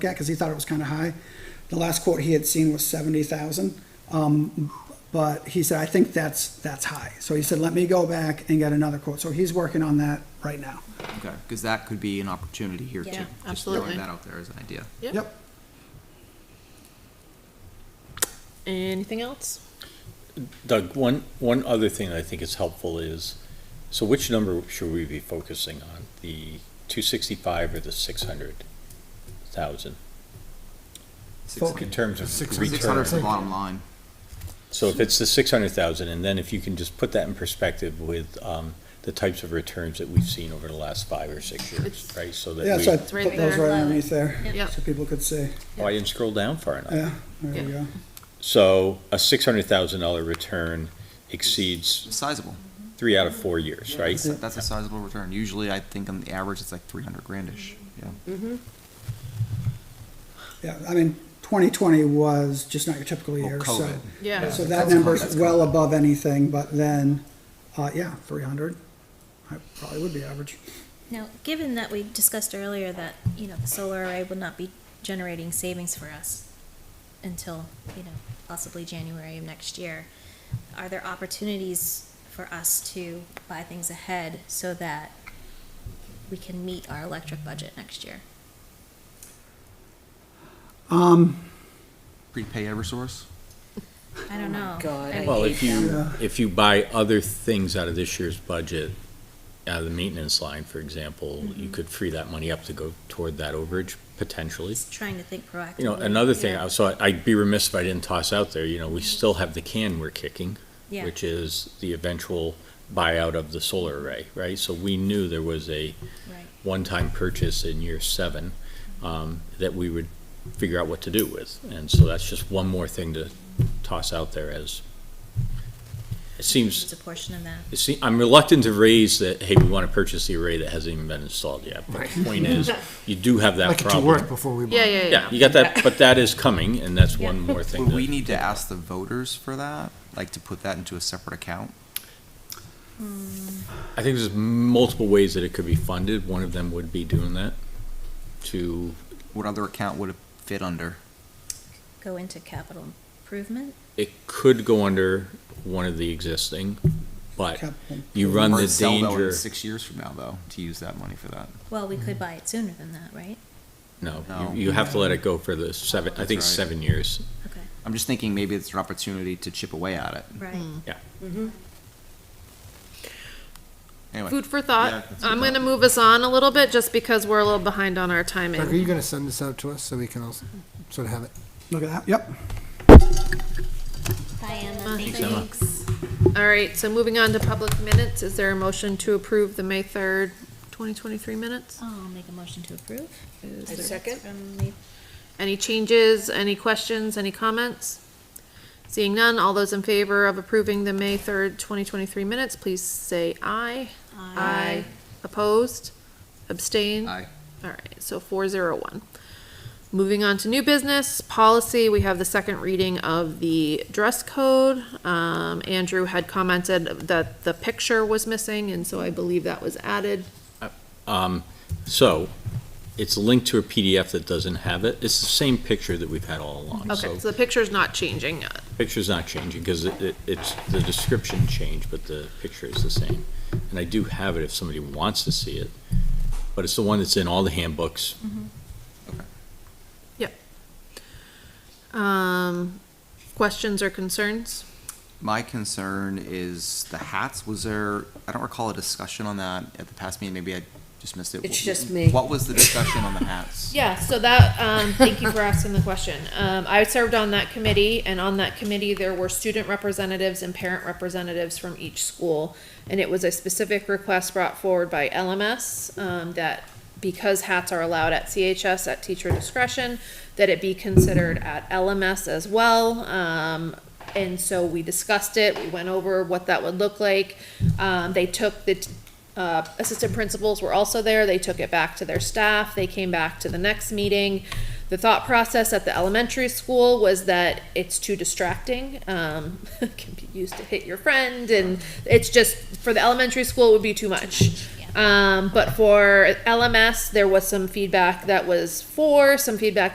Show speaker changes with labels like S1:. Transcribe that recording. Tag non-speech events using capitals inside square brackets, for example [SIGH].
S1: at, because he thought it was kind of high. The last quote he had seen was seventy thousand. Um, but he said, I think that's, that's high. So he said, let me go back and get another quote. So he's working on that right now.
S2: Okay, because that could be an opportunity here too.
S3: Yeah,
S2: Just throwing
S3: absolutely.
S2: that out there as an idea.
S3: Yep. Anything else?
S4: Doug, one, one other thing I think is helpful is, so which number should we be focusing on? The two sixty-five or the six hundred thousand? In terms of
S2: Six hundred is the
S4: return.
S2: bottom line.
S4: So if it's the six hundred thousand, and then if you can just put that in perspective with, um, the types of returns that we've seen over the last five or six years,
S3: It's-
S4: right? So
S1: Yeah,
S4: that
S1: so I
S4: we,
S3: It's right
S1: put those
S3: there.
S1: right underneath there,
S3: Yep.
S1: so people could see.
S4: oh, I didn't scroll down far enough.
S1: Yeah, there we go.
S4: So a six hundred thousand dollar return exceeds
S2: It's sizable.
S4: three out of four years, right?
S2: That's a- That's a sizable return. Usually, I think on the average, it's like three hundred grandish, yeah.
S1: Yeah, I mean, twenty twenty was just not your typical
S2: Or
S1: year, so.
S2: Oh, COVID.
S3: Yeah.
S1: So that
S2: That's
S1: number's
S2: COVID.
S1: well above anything, but then, uh, yeah, three hundred, I probably would be average.
S5: Now, given that we discussed earlier that, you know, the solar array will not be generating savings for us until, you know, possibly January of next year, are there opportunities for us to buy things ahead so that we can meet our electric budget next year?
S1: Um,
S2: Prepay Eversource.
S5: I don't know.
S3: Oh God,
S5: I
S3: I
S5: mean,
S4: Well,
S3: hate
S4: if you,
S1: them.
S4: if you buy other things out of this year's budget, out of the maintenance line, for example, you
S5: Mm-hmm.
S4: could free that money up to go toward that overage potentially.
S5: Just trying to think proactively.
S4: You know, another thing,
S5: Yeah. Mm-hmm.
S4: I- so I- I'd be remiss if I didn't toss out there, you know, we still have the can we're kicking,
S5: Yeah.
S4: which is the eventual buyout of the solar array, right? So we knew there was
S5: Right.
S4: a
S5: Mm-hmm.
S4: one-time purchase in year seven um, that we would figure out what to do with. And so that's just one more thing to toss out there as, it seems,
S5: It's a portion of that.
S4: you See, I'm reluctant to raise that, hey, we want to purchase the array that hasn't even been installed yet. But the point is, you do have that
S6: Like it to work
S4: problem.
S6: before we.
S3: Yeah, yeah,
S4: Yeah,
S3: yeah.
S4: you got that, but that is coming, and that's one
S5: Yeah.
S4: more thing.
S2: Would we
S4: to-
S2: need to ask the voters for that, like to put that into a separate account?
S4: I think there's multiple ways that it could be funded. One of them would be doing that to,
S2: What other account would it fit under?
S5: Go into capital improvement?
S4: it could go under one of the existing, but
S1: Capital.
S4: you run
S2: Or
S4: the
S2: sell though in
S4: danger,
S2: Six years from now, though, to use that money for that.
S5: Well, we
S4: Mm-hmm.
S5: could buy it sooner than that, right?
S4: no, you-
S2: No.
S4: you have to let it go for the seven, I
S2: That's
S4: think,
S2: right.
S4: seven years.
S5: Okay,
S2: I'm just thinking maybe it's an opportunity to chip away at
S3: Mm-hmm.
S2: it.
S5: right.
S2: Anyway.
S3: Food for
S2: Yeah,
S3: thought.
S2: that's
S3: I'm
S2: good.
S3: gonna move us on a little bit just because we're a little behind on our timing.
S6: Doug, are you gonna send this out to us so we can also sort of have it?
S1: Look at that, yep.
S5: Bye, Emma.
S4: Thanks, Emma.
S3: All right, so moving on to public minutes, is there a motion to approve the May third, twenty twenty-three minutes?
S5: I'll Um, make a motion to approve.
S3: Is
S5: Is
S3: there-
S5: there- From me.
S3: Any changes, any questions, any comments? Seeing none, all those in favor of approving the May third, twenty twenty-three minutes, please say aye. Opposed? Abstained?
S2: Aye.
S3: All right, so four zero one. Moving on to new business policy, we have the second reading of the dress code. Um, Andrew had commented that the picture was missing, and so I believe that was added.
S4: Um, so, it's linked to a PDF that doesn't have it. It's the same picture that we've had all along.
S3: Okay,
S4: So,
S3: so the picture's not changing.
S4: picture's not changing, because it, it- it's, the description changed, but the picture is the same. And I do have it if somebody wants to see it, but it's the one that's in all the handbooks.
S3: Um, questions or concerns?
S2: My concern is the hats. Was there, I don't recall a discussion on that at the past meeting. Maybe I just missed it.
S7: It's
S2: Wh-
S7: just me.
S2: What was the discussion on the
S7: [LAUGHS]
S2: hats?
S3: Yeah, so that, um, thank you for asking the question. Um, I served on that committee, and on that committee, there were student representatives and parent representatives from each school. And it was a specific request brought forward by LMS, um, that because hats are allowed at CHS at teacher discretion, that it be considered at LMS as well. Um, and so we discussed it, we went over what that would look like. Um, they took the, t- uh, assistant principals were also there. They took it back to their staff. They came back to the next meeting. The thought process at the elementary school was that it's too distracting. Um, [LAUGHS] it can be used to hit your friend, and it's just for the elementary school it would be too much. Um, but for LMS, there was some feedback that was for, some feedback